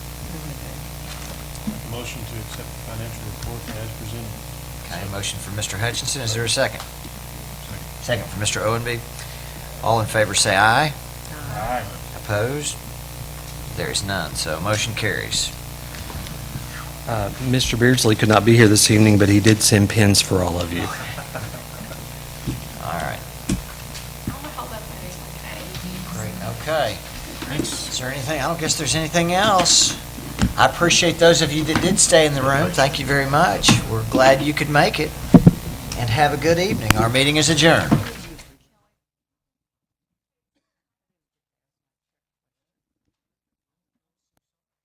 motion to accept the financial report as presented. Okay, motion for Mr. Hutchinson, is there a second? Second. Second for Mr. Owenby. All in favor say aye. Aye. Opposed? There is none, so motion carries. Uh, Mr. Beardsley could not be here this evening, but he did send pins for all of you. All right, I'm gonna hold up my next one. great, okay. Thanks. Is there anything, I don't guess there's anything else. I appreciate those of you that did stay in the room, thank you very much. We're glad you could make it, and have a good evening. Our meeting is adjourned.